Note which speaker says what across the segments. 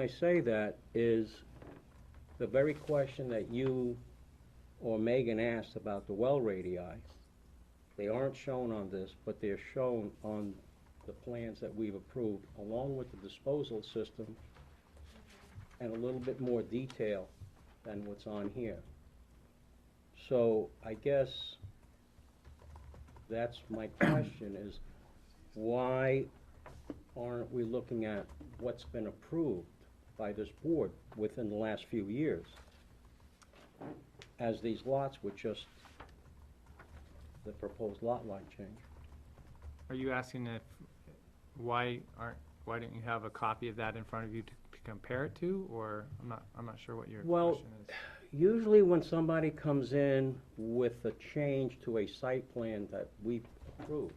Speaker 1: I say that is the very question that you or Megan asked about the well radii. They aren't shown on this, but they're shown on the plans that we've approved, along with the disposal system and a little bit more detail than what's on here. So I guess that's my question is, why aren't we looking at what's been approved by this board within the last few years? As these lots were just the proposed lot line change.
Speaker 2: Are you asking if, why aren't, why don't you have a copy of that in front of you to to compare it to, or, I'm not, I'm not sure what your
Speaker 1: Well,
Speaker 2: question is.
Speaker 1: Usually when somebody comes in with a change to a site plan that we approved,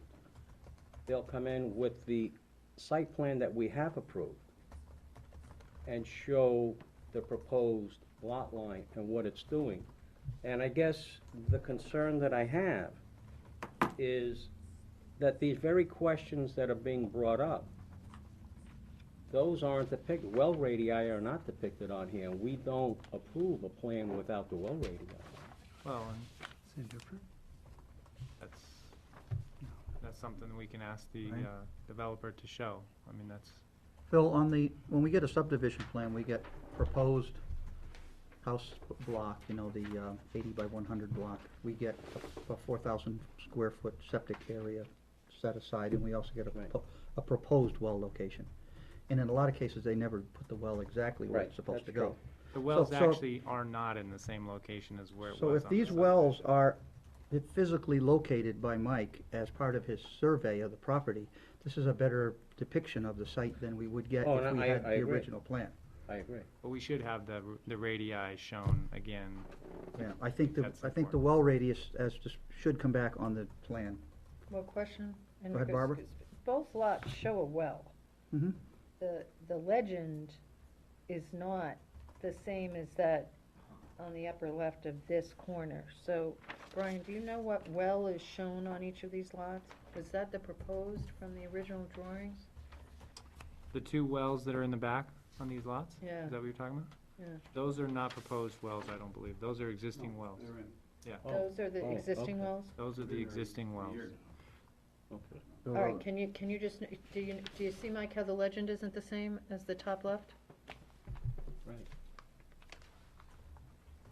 Speaker 1: they'll come in with the site plan that we have approved and show the proposed lot line and what it's doing. And I guess the concern that I have is that these very questions that are being brought up, those aren't depicted, well radii are not depicted on here. We don't approve a plan without the well radii.
Speaker 2: Well, and
Speaker 3: Is it different?
Speaker 2: that's, that's something we can ask the
Speaker 3: Right.
Speaker 2: uh, developer to show. I mean, that's,
Speaker 3: Phil, on the, when we get a subdivision plan, we get proposed house b- block, you know, the uh, eighty by one hundred block. We get a- a four thousand square foot septic area set aside, and we also get a,
Speaker 1: Right.
Speaker 3: propo- a proposed well location. And in a lot of cases, they never put the well exactly where
Speaker 1: Right,
Speaker 3: it's supposed
Speaker 1: that's
Speaker 3: to go.
Speaker 2: the wells
Speaker 3: so-
Speaker 2: actually are not in the same location as where it was
Speaker 3: So if
Speaker 2: on the
Speaker 3: these
Speaker 2: subdivision.
Speaker 3: wells are physically located by Mike as part of his survey of the property, this is a better depiction of the site than we would get
Speaker 1: Oh,
Speaker 3: if
Speaker 1: and
Speaker 3: we
Speaker 1: I-
Speaker 3: had
Speaker 1: I
Speaker 3: the
Speaker 1: agree.
Speaker 3: original plan.
Speaker 1: I agree.
Speaker 2: But we should have the, r- the radii shown again.
Speaker 3: Yeah, I think the,
Speaker 2: That's
Speaker 3: I think the well radius as, just should come back on the plan.
Speaker 4: Well, question? and
Speaker 3: Go ahead,
Speaker 4: because-
Speaker 3: Barbara.
Speaker 4: because Both lots show a well.
Speaker 3: Mhm.
Speaker 4: The, the legend is not the same as that on the upper left of this corner. So, Brian, do you know what well is shown on each of these lots? Was that the proposed from the original drawings?
Speaker 2: The two wells that are in the back on these lots?
Speaker 4: Yeah.
Speaker 2: Is that what you're talking about?
Speaker 4: Yeah.
Speaker 2: Those are not proposed wells, I don't believe. Those are existing wells.
Speaker 1: Oh,
Speaker 4: Those are the
Speaker 1: oh,
Speaker 4: existing
Speaker 1: okay.
Speaker 4: wells?
Speaker 2: Those are the existing wells.
Speaker 1: Okay.
Speaker 4: All right, can you, can you just, do you, do you see, Mike, how the legend isn't the same as the top left?
Speaker 1: Right.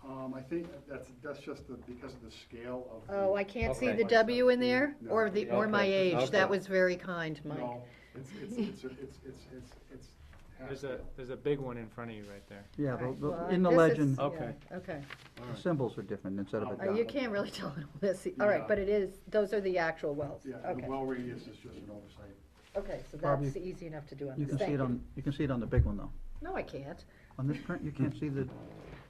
Speaker 5: Um, I think that's, that's just the, because of the scale of. the-
Speaker 4: Oh, I can't see
Speaker 1: Okay.
Speaker 4: the W in there,
Speaker 5: No.
Speaker 4: or the, or my
Speaker 1: Okay,
Speaker 4: age, that
Speaker 1: okay.
Speaker 4: was very kind, Mike.
Speaker 5: No, it's, it's, it's, it's, it's, it's, it's half
Speaker 2: There's a,
Speaker 5: scale.
Speaker 2: there's a big one in front of you right there.
Speaker 3: Yeah,
Speaker 4: All right,
Speaker 3: the- the-
Speaker 4: well,
Speaker 3: in the
Speaker 4: this is-
Speaker 3: legend,
Speaker 4: yeah,
Speaker 1: Okay.
Speaker 4: Okay,
Speaker 1: All
Speaker 3: the
Speaker 1: right.
Speaker 3: symbols are different instead of a
Speaker 5: Oh,
Speaker 4: Oh, you
Speaker 3: dot.
Speaker 4: can't really tell in all this, e, all right,
Speaker 5: Yeah.
Speaker 4: but it is, those are the actual wells,
Speaker 5: Yeah, the
Speaker 4: okay,
Speaker 5: well radius is just an oversight.
Speaker 4: okay, so
Speaker 3: Barbie,
Speaker 4: that's easy enough to do on
Speaker 3: You
Speaker 4: this,
Speaker 3: can see
Speaker 4: thank
Speaker 3: it
Speaker 4: you.
Speaker 3: on, you can see it on the big one, though.
Speaker 4: No, I can't,
Speaker 3: On this print, you can't see the,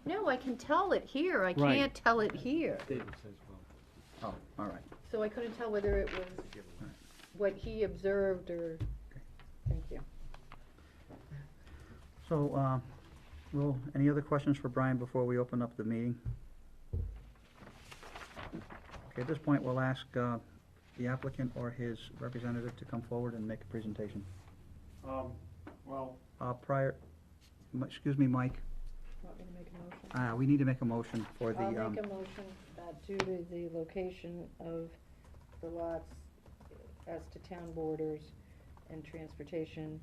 Speaker 4: no, I can tell it here, I
Speaker 1: Right.
Speaker 4: can't tell it here,
Speaker 3: oh, all right.
Speaker 4: so I couldn't tell whether it was what he observed or, thank you.
Speaker 3: So, uh, well, any other questions for Brian before we open up the meeting? Okay, at this point, we'll ask uh, the applicant or his representative to come forward and make a presentation.
Speaker 5: Um, well,
Speaker 3: Uh, Prior, m- excuse me, Mike,
Speaker 4: Want me to make a motion?
Speaker 3: uh, we need to make a motion for the.
Speaker 4: I'll
Speaker 3: um,
Speaker 4: make a motion that due to the location of the lots as to town borders and transportation,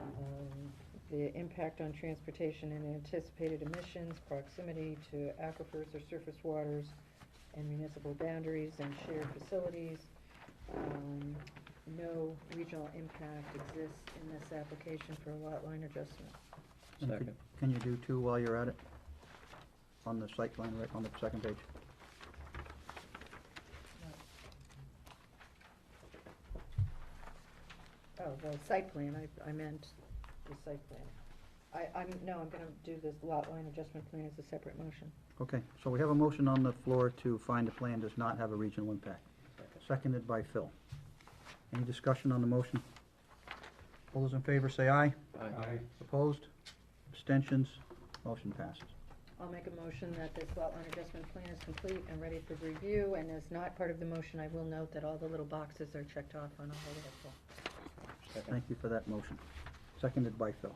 Speaker 4: um, the impact on transportation and anticipated emissions, proximity to aquifers or surface waters and municipal boundaries and shared facilities, um, no regional impact exists in this application for a lot line adjustment.
Speaker 3: And could-
Speaker 1: Second.
Speaker 3: Can you do two while you're at it? On the site plan, right, on the second page?
Speaker 4: Oh, well, site plan, I, I meant the site plan. I, I'm, no, I'm gonna do this lot line adjustment plan as a separate motion.
Speaker 3: Okay, so we have a motion on the floor to find the plan does not have a regional impact, seconded by Phil. Any discussion on the motion? All those in favor say aye.
Speaker 1: Aye.
Speaker 3: Opposed? Abstentions? Motion passes.
Speaker 4: I'll make a motion that this lot line adjustment plan is complete and ready for review, and as not part of the motion, I will note that all the little boxes are checked off on all the little.
Speaker 3: Thank you for that motion, seconded by Phil.